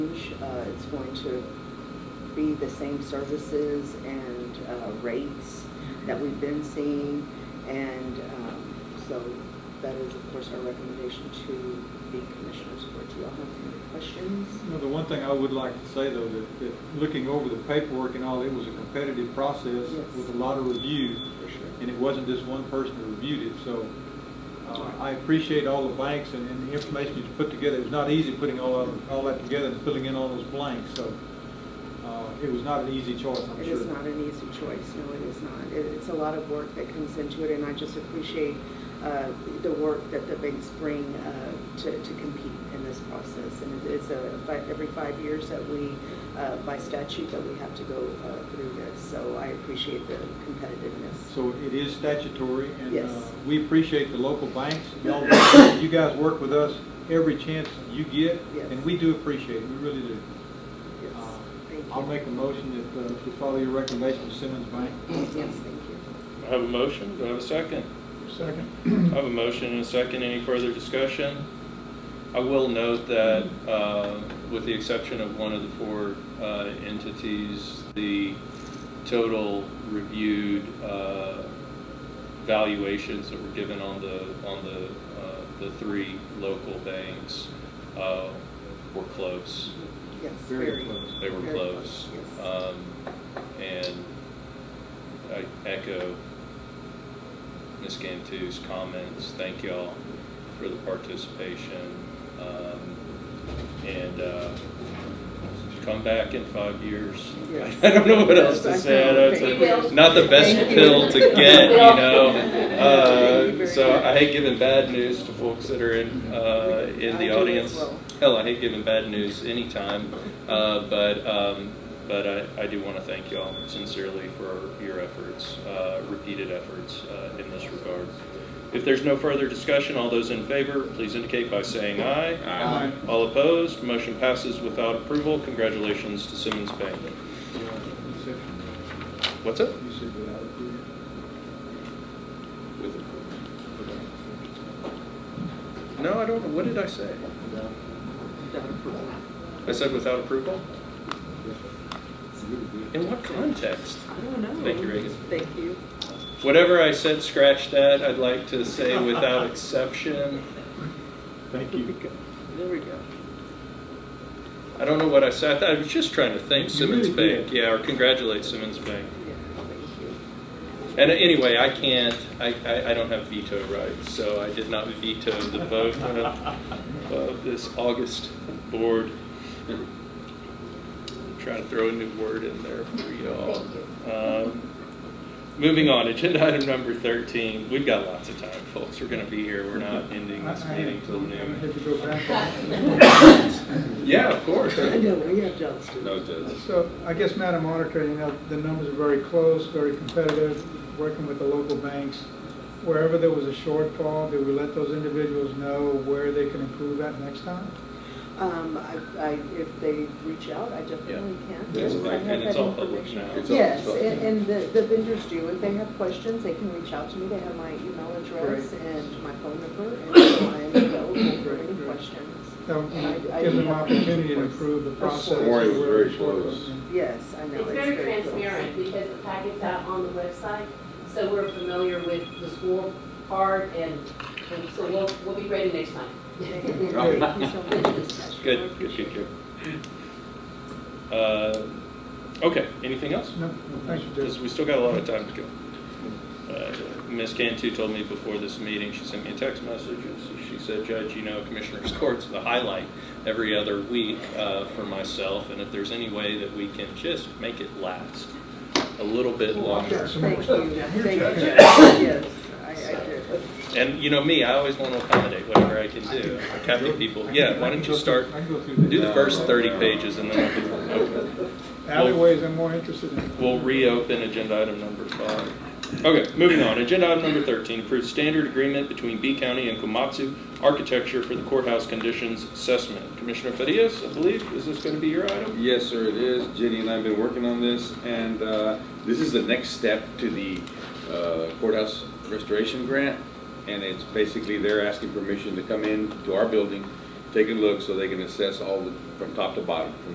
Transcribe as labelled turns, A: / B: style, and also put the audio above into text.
A: uh, it's going to be the same services and uh, rates that we've been seeing. And um, so that is, of course, our recommendation to the commissioners for it. Do y'all have any questions?
B: You know, the one thing I would like to say though, that, that looking over the paperwork and all, it was a competitive process
A: Yes.
B: with a lot of review,
A: For sure.
B: and it wasn't just one person who reviewed it, so uh, I appreciate all the blanks and, and the information you put together. It was not easy putting all, of- all that together and filling in all those blanks, so, uh, it was not an easy choice, I'm sure.
A: It is not an easy choice, no, it is not. It- It's a lot of work that comes into it, and I just appreciate uh, the work that the banks bring uh, to to compete in this process. And it- it's a, fi- every five years that we, uh, by statute, that we have to go uh, through this, so I appreciate the competitiveness.
B: So it is statutory, and
A: Yes.
B: uh, we appreciate the local banks. Y'all work- You guys work with us every chance you get,
A: Yes.
B: and we do appreciate it, we really do.
A: Yes,
B: Uh,
A: thank you.
B: I'll make a motion that, uh, to follow your recommendation, to Simmons Bank.
A: Yes, thank you.
C: I have a motion, do I have a second? Second. I have a motion and a second, any further discussion? I will note that, uh, with the exception of one of the four uh, entities, the total reviewed uh, valuations that were given on the, on the, uh, the three local banks uh, were close.
A: Yes,
B: Very
A: very.
B: close.
C: They were
A: very
C: close.
A: yes.
C: Um, And I echo Ms. Gantu's comments. Thank y'all for the participation. Um, And uh, come back in five years.
A: Yes.
C: I don't know what else to
A: Yes, I
C: say. I know it's
A: know.
C: a- not the best
A: Thank you.
C: pill to get, you
A: Thank you
C: know? Uh,
A: very
C: So I
A: much.
C: hate giving bad news to folks that are in, uh, in
A: I do
C: the
A: as
C: audience.
A: well.
C: Hell, I hate giving bad news anytime, uh, but, um, but I, I do want to thank y'all sincerely for your efforts, uh, repeated efforts, uh, in this regard. If there's no further discussion, all those in favor, please indicate by saying aye.
B: Aye.
C: All opposed, motion passes without approval. Congratulations to Simmons Bank. What's up? No, I don't, know. what did I say? I said without approval? In what context?
A: I don't know.
C: Thank you, Reagan.
A: Thank you.
C: Whatever I said, scratch that. I'd like to say without exception.
B: Thank you.
A: There we go.
C: I don't know what I said. I thought- I was just trying to thank
B: You
C: Simmons
B: really did.
C: Bank. Yeah, or congratulate Simmons Bank.
A: Yeah, thank you.
C: And anyway, I can't, I, I, I don't have veto rights, so I did not veto the vote of, of this August board. Trying to throw a new word in there for y'all. Um, Moving on, agenda item number thirteen, we've got lots of time, folks, we're gonna be here, we're not ending this meeting till noon. Yeah, of course.
A: I know, we have jobs to do.
D: No judge.
B: So I guess, Madam Auditor, you know, the numbers are very close, very competitive, working with the local banks. Wherever there was a shortfall, did we let those individuals know where they can improve at next time?
A: Um, I, I, if they reach out, I definitely can.
D: That's
A: I
D: right,
A: have
C: and it's
A: that
C: all public
A: information.
C: now. It's
D: all-
A: Yes,
D: it's all-
A: and, and the, the vendors do, if they have questions, they can reach out to me, they have my email address
B: Great.
A: and my phone number, and so I am available for
B: Great,
A: any
B: great.
A: questions.
B: That would
A: And I- I
B: give
A: do
B: them
A: have-
B: opportunity to improve the
A: Of
B: process.
A: course.
D: Warren was very close.
A: Yes, I know.
E: It's very
A: close.
E: transparent because the packet's out on the website, so we're familiar with the school part and, and so we'll, we'll be ready next time.
A: Thank you so much for this session. I
C: Good, good,
A: appreciate
C: good,
A: it.
C: good. Uh, Okay, anything else?
B: No, no, thank you,
C: Because
B: Judge.
C: we still got a lot of time to go. Uh, Ms. Cantu told me before this meeting, she sent me a text message, and she- she said, Judge, you know, Commissioner's Court's the highlight every other week uh, for myself, and if there's any way that we can just make it last a little bit longer.
A: Thank you, thank you,
B: Here, Judge.
A: yes, I, I do.
C: And you know me, I always want to accommodate whatever I can do. I Catholic people, yeah, why don't you start, do the first 30 pages and then I'll be open.
B: Uh, Alleyways I'm more interested in.
C: We'll reopen agenda item number five. Okay, moving on. Agenda item number 13, approves standard agreement between B County and Komatsu Architecture for the courthouse conditions assessment. Commissioner Farias, I believe, is this going to be your item?
D: Yes, sir, it is. Jenny and I have been working on this, and uh, this is the next step to the uh, courthouse restoration grant. And it's basically they're asking permission to come in to our building, take a look, so they can assess all the, from top to bottom, from